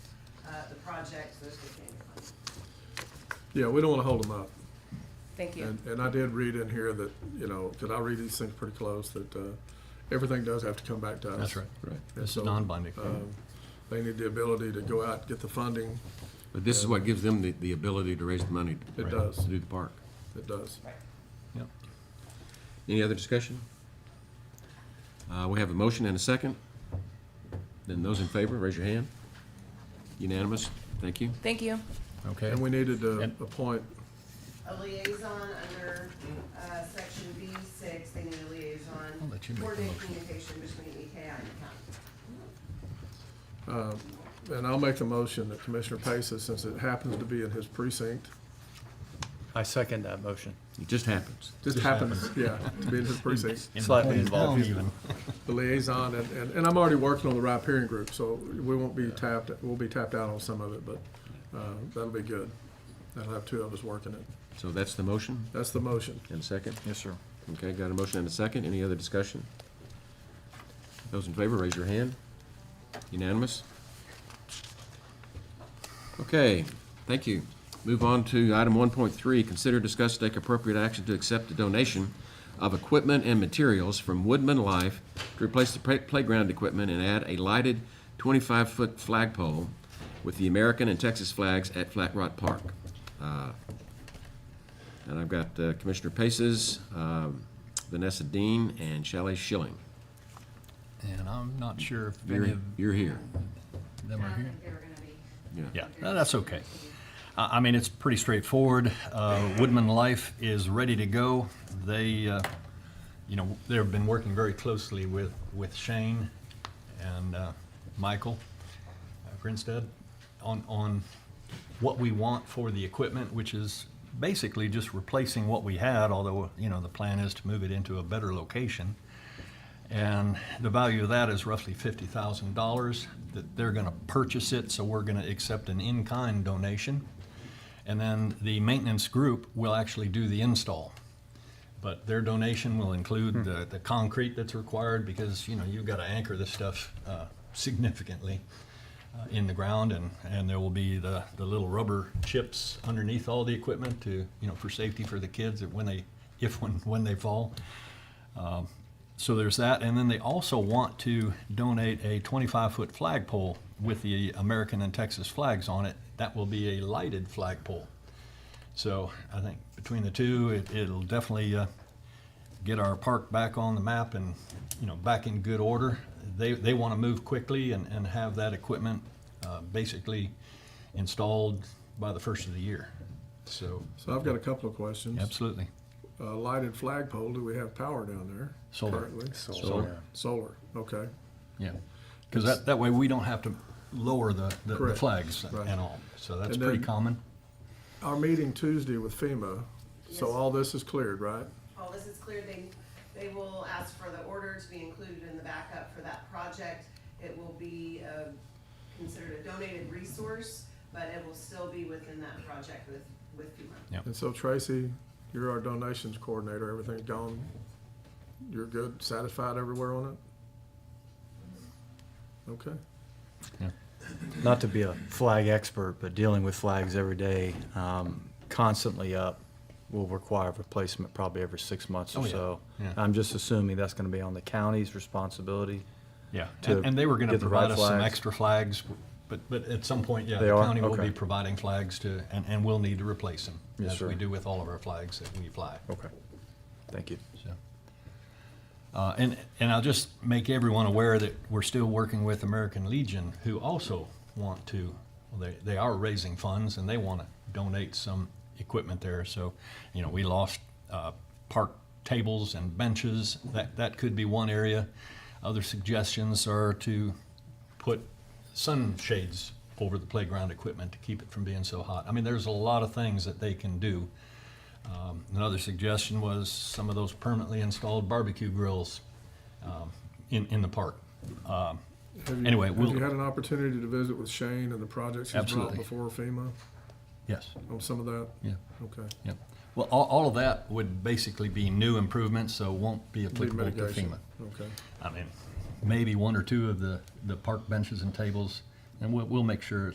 uh, projects as we can. Yeah, we don't want to hold them up. Thank you. And, and I did read in here that, you know, because I read these things pretty close, that uh, everything does have to come back to us. That's right. Right. And This so, is non-binding. um, They need the ability to go out, get the funding. But this is what gives them the, the ability to raise the money. It does. To do the park. It does. Yep. Any other discussion? Uh, we have a motion and a second. Then those in favor, raise your hand. Unanimous, thank you. Thank you. Okay. And we needed to And- appoint, A liaison under, uh, section B six, they need a liaison. I'll let you make the Coordinate motion. communication between EKI and the county. and I'll make the motion that Commissioner Paces, since it happens to be in his precinct, I second that motion. It just happens. just happens, yeah, to be in his precinct, Slightly Involved involved. even. the liaison, and, and, and I'm already working on the riparian group, so we won't be tapped, we'll be tapped out on some of it, but uh, that'll be good. That'll have two of us working it. So that's the motion That's the motion. and a second. Yes, sir. Okay, got a motion and a second. Any other discussion? Those in favor, raise your hand. Unanimous? Okay, thank you. Move on to item one point three, consider discuss take appropriate action to accept a donation of equipment and materials from Woodman Life to replace the play- playground equipment and add a lighted twenty-five-foot flagpole with the American and Texas flags at Flat Rock Park. Uh, and I've got uh, Commissioner Paces, um, Vanessa Dean, and Shelley Schilling. And I'm not sure if You're, any of you're here. them are Uh, I here. think they were gonna be. Yeah, no, that's okay. I, I mean, it's pretty straightforward. Uh, Woodman Life is ready to go. They, uh, you know, they've been working very closely with, with Shane and, uh, Michael uh, Grinstead on, on what we want for the equipment, which is basically just replacing what we had, although, you know, the plan is to move it into a better location. And the value of that is roughly fifty thousand dollars, that they're gonna purchase it, so we're gonna accept an in-kind donation. And then the maintenance group will actually do the install. But their donation will include the, the concrete that's required, because, you know, you've gotta anchor this stuff, uh, significantly uh, in the ground, and, and there will be the, the little rubber chips underneath all the equipment to, you know, for safety for the kids, that when they, if, when, when they fall. So there's that, and then they also want to donate a 25-foot flagpole with the American and Texas flags on it. That will be a lighted flagpole. So I think between the two, it, it'll definitely uh, get our park back on the map and, you know, back in good order. They, they want to move quickly and, and have that equipment uh, basically installed by the first of the year. So, So I've got a couple of questions. absolutely. Uh, lighted flagpole, do we have power down there? Solar. currently? Solar. Solar, okay. Yeah, because that, that way we don't have to lower the, the- the Correct. flags Right. and all, so that's And pretty then- common. Our meeting Tuesday with FEMA, so Yes. all this is cleared, right? All this is clear, they, they will ask for the order to be included in the backup for that project. It will be, uh, considered a donated resource, but it will still be within that project with, with FEMA. Yeah. And so Tracy, you're our donations coordinator, everything's gone, you're good, satisfied everywhere on it? Okay, Not to be a flag expert, but dealing with flags every day, um, constantly up, will require replacement probably every six months Oh, or yeah. so. Yeah. I'm just assuming that's gonna be on the county's responsibility. Yeah, to and, and they were gonna get the right provide us some flags. extra flags, but, but at some point, yeah, They the are? county will Okay. be providing flags to, and, and we'll need to replace them. Yes, As we sir. do with all of our flags that we fly. Okay. Thank you. So, Uh, and, and I'll just make everyone aware that we're still working with American Legion, who also want to, well, they, they are raising funds and they want to donate some equipment there. So, you know, we lost uh, park tables and benches. That, that could be one area. Other suggestions are to put sunshades over the playground equipment to keep it from being so hot. I mean, there's a lot of things that they can do. Um, Another suggestion was some of those permanently installed barbecue grills um, in, in the park. Um, Have you- Anyway, we'll- Have you had an opportunity to visit with Shane and the projects he's brought Absolutely. before FEMA Yes, on some of that? yeah, Okay, yeah. Well, all, all of that would basically be new improvements, so won't be lead applicable to mitigation, FEMA. okay. I mean, maybe one or two of the, the park benches and tables, and we'll, we'll make sure